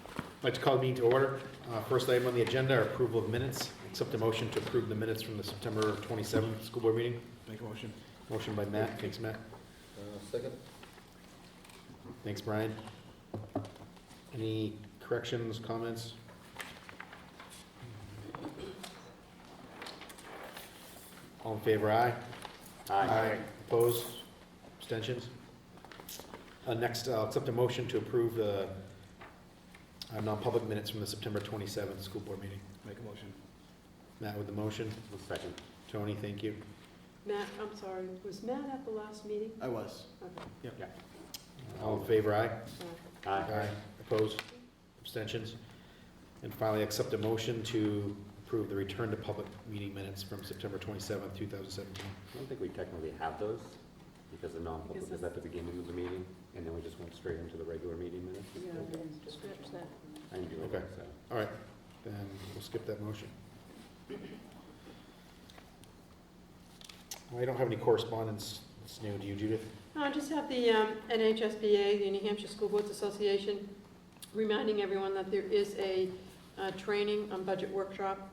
I'd like to call the meeting to order. Uh, First item on the agenda, are approval of minutes. Accept a motion to approve the minutes from the September 27th school board meeting. Make a motion. Motion by Matt, thanks Matt. Uh, Second? Thanks Brian. Any corrections, comments? All in favor, aye? Opposed? Abstentions? Uh, Next, uh, accept a motion to approve the uh, non-public minutes from the September 27th school board meeting. Make a motion. Matt with the motion. Second. Tony, thank you. Matt, I'm sorry, was Matt at the last meeting? I was. Okay. All in favor, aye? Uh, Opposed? Abstentions? And finally, accept a motion to approve the return to public meeting minutes from September 27th, 2017. I don't think we technically have those, because the Is non-public this- is at the beginning of the meeting, and then we just went straight into the regular meeting minutes. yeah, scratch that. I can do it, Okay. so. All right, then we'll skip that motion. I don't have any correspondence. It's new. Do you, Judith? No, I just have the um, NHSBA, the New Hampshire School Boards Association, reminding everyone that there is a uh, training on budget workshop,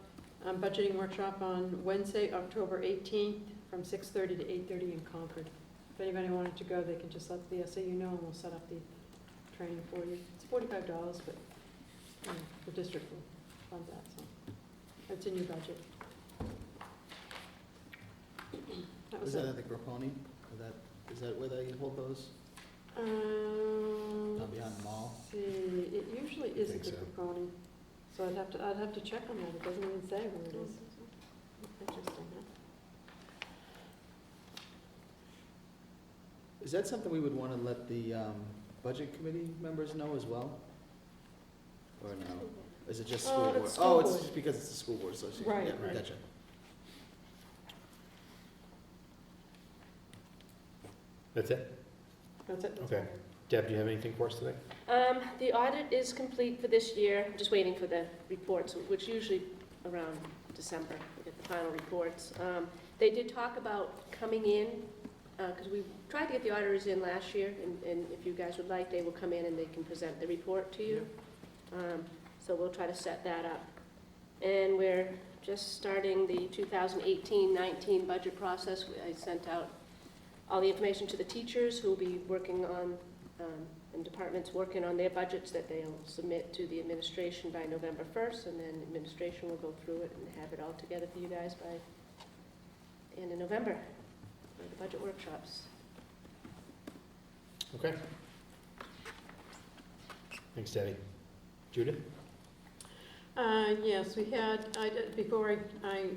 um, budgeting workshop on Wednesday, October 18th, from 6:30 to 8:30 in Concord. If anybody wanted to go, they can just let the SAU know, and we'll set up the training for you. It's $45, but um, the district will fund that, so it's in your budget. That Is was that it. at the Groponi? Is that, is that where they hold those? Um, Not beyond the mall? let's See, it usually is at Think the so. Bocconi, so I'd have to, I'd have to check on that, it doesn't even say where it is. Interesting, huh? Is that something we would want to let the um, budget committee members know as well? Or no? Is it just Oh, school it's board? school Oh, it's board. just because it's the school board association. Right. Yeah, Right. Gotcha. That's it? That's it? that's Okay. Deb, do you have anything for us today? Um, The audit is complete for this year, I'm just waiting for the reports, which usually around December, we get the final reports. Um, They did talk about coming in, because we tried to get the auditors in last year, and- and if you guys would like, they will come in and they can present the report to you. Um, So we'll try to set that up. And we're just starting the 2018-19 budget process. I sent out all the information to the teachers who will be working on um, and departments working on their budgets that they'll submit to the administration by November 1st, and then administration will go through it and have it all together for you guys by the end of November, for the budget workshops. Okay. Thanks, Debbie. Judith? Uh, Yes, we had, I did- before I- I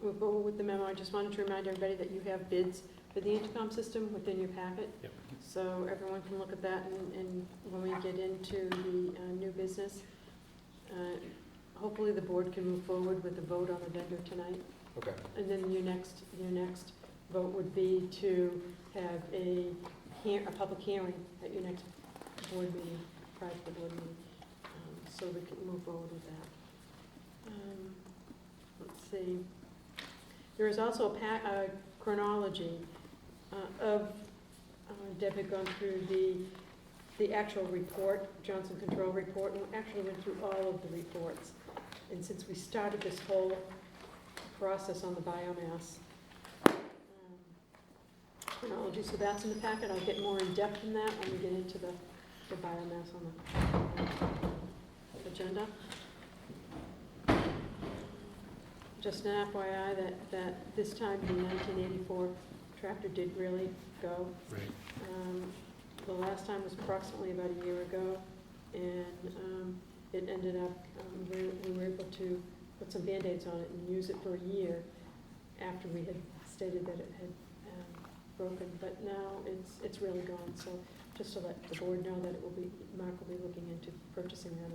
move forward with the memo, I just wanted to remind everybody that you have bids for the intercom system within your packet. Yep. So everyone can look at that, and- and when we get into the uh, new business, uh, hopefully the board can move forward with a vote on the vendor tonight. Okay. And then your next, your next vote would be to have a hear, a public hearing at your next board meeting, prior to the board meeting, um, so we can move forward with that. Um, Let's see. There is also a pa, a chronology uh, of, uh, Deb had gone through the, the actual report, Johnson Control Report, and actually went through all of the reports. And since we started this whole process on the biomass um, chronology, so that's in the packet, I'll get more in-depth in that when we get into the, the biomass on the agenda. Just an FYI that, that this time the nineteen eighty-four tractor did really go. Right. Um, The last time was approximately about a year ago, and um, it ended up, um, we we were able to put some Band-Aids on it and use it for a year after we had stated that it had um, broken, but now it's, it's really gone, so just to let the board know that it will be, Mark will be looking into purchasing that.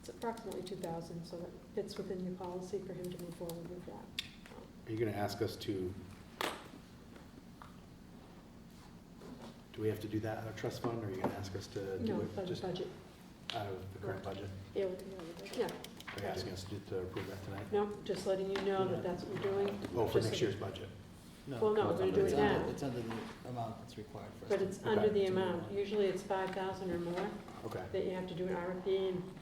It's approximately two thousand, so that fits within your policy for him to move forward with that. Are you going to ask us to? Do we have to do that out of trust fund, or are you going to ask us to No, do it budget, just out budget, of the current budget? yeah, we- yeah, Are you asking us to do- to approve that tonight? no, just letting you know that that's what we're doing, Oh, for Just next so- year's budget? Well, no, we're gonna do It's it under- now. It's under the amount that's required for us. but to- it's under Okay. the amount. Usually it's five thousand or more Okay. that you have to do an RFP and